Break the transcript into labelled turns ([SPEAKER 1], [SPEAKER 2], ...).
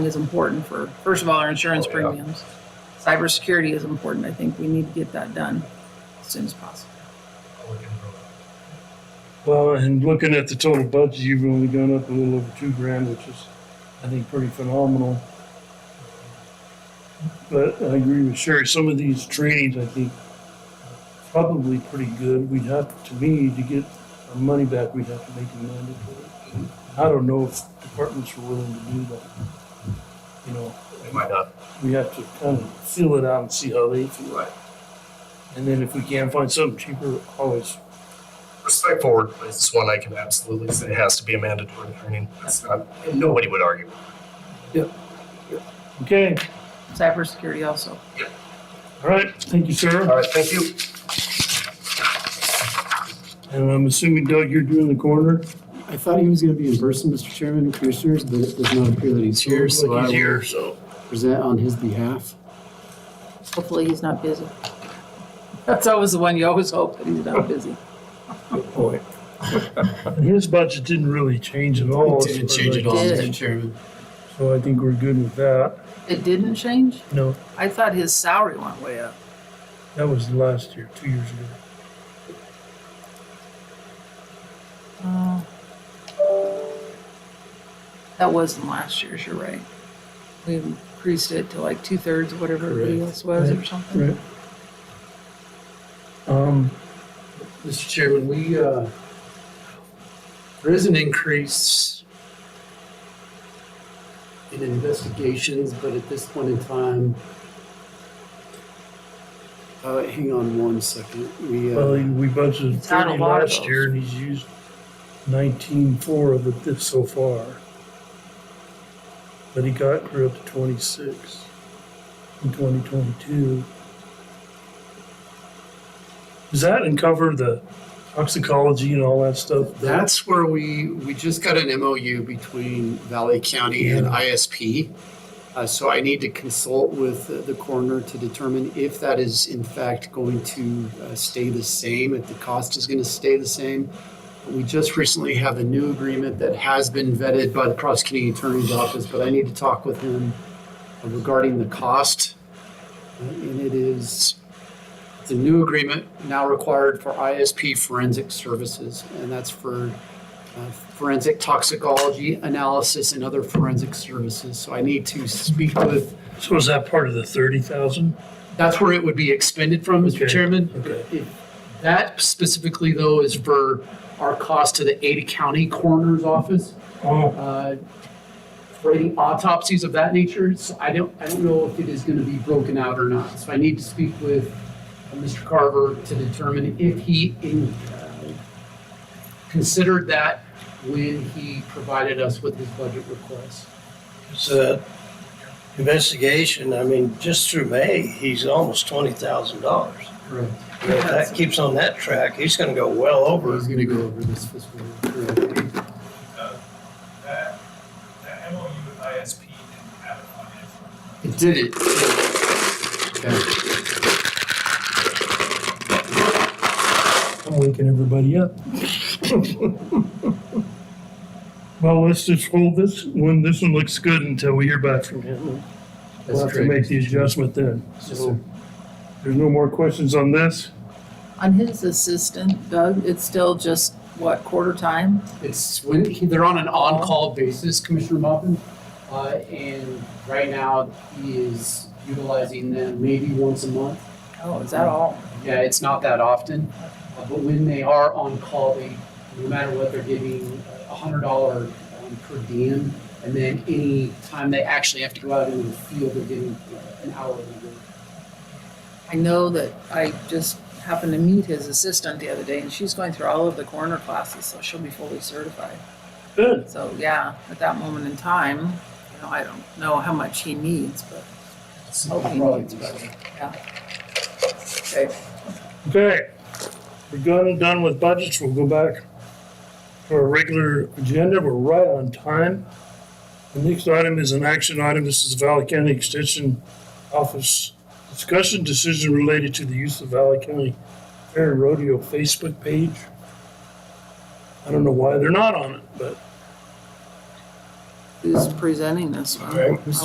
[SPEAKER 1] is important for, first of all, our insurance
[SPEAKER 2] Oh,
[SPEAKER 1] premiums. Cybersecurity is important. I think we need to get that done as soon as possible.
[SPEAKER 2] Well, and looking at the total budget, you've only gone up a little over two grand, which is, I think, pretty phenomenal. But I agree with Sherry, some of these trainings, I think, are probably pretty good. We'd have, to me, to get our money back, we'd have to make them mandatory. I don't know if departments are willing to do that. You know,
[SPEAKER 3] They might not.
[SPEAKER 2] we have to kind of feel it out and see how they feel.
[SPEAKER 3] Right.
[SPEAKER 2] And then if we can find something cheaper, always
[SPEAKER 3] Respect forward is one I can absolutely say has to be a mandatory training. That's not, nobody would argue.
[SPEAKER 2] Okay,
[SPEAKER 1] Cybersecurity also.
[SPEAKER 2] all right, thank you,
[SPEAKER 3] All
[SPEAKER 2] sir.
[SPEAKER 3] right, thank you.
[SPEAKER 2] And I'm assuming Doug, you're doing the corner?
[SPEAKER 4] I thought he was going to be in person, Mr. Chairman and Commissioners, but it does not appear that he's here, so I
[SPEAKER 2] He's
[SPEAKER 4] will
[SPEAKER 2] here, so.
[SPEAKER 4] present on his behalf.
[SPEAKER 1] Hopefully he's not busy. That's always the one you always hope that he's not busy.
[SPEAKER 4] Boy.
[SPEAKER 2] His budget didn't really change at all.
[SPEAKER 4] Didn't change at all,
[SPEAKER 1] Did.
[SPEAKER 4] Mr. Chairman.
[SPEAKER 2] So I think we're good with that.
[SPEAKER 1] It didn't change?
[SPEAKER 2] No,
[SPEAKER 1] I thought his salary went way up.
[SPEAKER 2] that was last year, two years ago. Mm.
[SPEAKER 1] Oh. That wasn't last year's, you're right. We increased it to like two thirds of whatever everybody
[SPEAKER 4] Correct.
[SPEAKER 1] else was or something.
[SPEAKER 2] Right. Um,
[SPEAKER 4] Mr. Chairman, we, uh, there is an increase in investigations, but at this point in time, uh, hang on one second. We,
[SPEAKER 2] well,
[SPEAKER 4] uh,
[SPEAKER 2] we budgeted
[SPEAKER 1] It's had a
[SPEAKER 2] thirty
[SPEAKER 1] lot of
[SPEAKER 2] last
[SPEAKER 1] those.
[SPEAKER 2] year and he's used nineteen-four of it this so far. But he got, grew up to twenty-six in twenty twenty-two. Does that uncover the toxicology and all that stuff?
[SPEAKER 4] that's where we, we just got an MOU between Valley County and
[SPEAKER 2] Yeah.
[SPEAKER 4] ISP. Uh, so I need to consult with the- the coroner to determine if that is in fact going to uh, stay the same, if the cost is going to stay the same. We just recently have a new agreement that has been vetted by the prosecuting attorney's office, but I need to talk with him regarding the cost. Uh, And it is, the new agreement now required for ISP forensic services, and that's for uh, forensic toxicology analysis and other forensic services. So I need to speak with,
[SPEAKER 2] So is that part of the thirty thousand?
[SPEAKER 4] that's where it would be expended from, Mr.
[SPEAKER 2] Okay,
[SPEAKER 4] Chairman.
[SPEAKER 2] okay.
[SPEAKER 4] If- That specifically though is for our cost to the Ada County Coroner's Office,
[SPEAKER 2] Oh,
[SPEAKER 4] uh, for any autopsies of that nature. So I don't, I don't know if it is gonna be broken out or not. So I need to speak with uh, Mr. Carver to determine if he in, uh, considered that when he provided us with his budget request.
[SPEAKER 5] It's a investigation. I mean, just through May, he's almost twenty thousand dollars.
[SPEAKER 4] Correct.
[SPEAKER 5] If that keeps on that track, he's gonna go well over.
[SPEAKER 4] He's gonna go over this fiscal year. Correct.
[SPEAKER 6] that, that MOU with ISP didn't have it on it.
[SPEAKER 4] It did it. Okay.
[SPEAKER 2] I'm waking everybody up. Well, let's just hold this one, this one looks good until we hear back from him. We'll have to make the adjustment then. So, there's no more questions on this?
[SPEAKER 1] On his assistant, Doug, it's still just, what, quarter time?
[SPEAKER 4] It's when, he- they're on an on-call basis, Commissioner Mopin. Uh, and right now, he is utilizing them maybe once a month.
[SPEAKER 1] Oh, is that all?
[SPEAKER 4] Yeah, it's not that often, uh, but when they are on call, they, no matter what, they're giving a hundred dollar um, per diem. And then any time they actually have to go out into the field, they're getting uh, an hour of work.
[SPEAKER 1] I know that I just happened to meet his assistant the other day and she's going through all of the coroner classes, so she'll be fully certified.
[SPEAKER 2] Good.
[SPEAKER 1] So yeah, at that moment in time, you know, I don't know how much he needs, but hope he needs better. Yeah. Okay.
[SPEAKER 2] Okay, we're done, and done with budgets, we'll go back to our regular agenda, we're right on time. The next item is an action item, this is Valley County Extension Office discussion decision related to the use of Valley County Fair and Rodeo Facebook page. I don't know why they're not on it, but
[SPEAKER 7] who's presenting this one?
[SPEAKER 1] Right.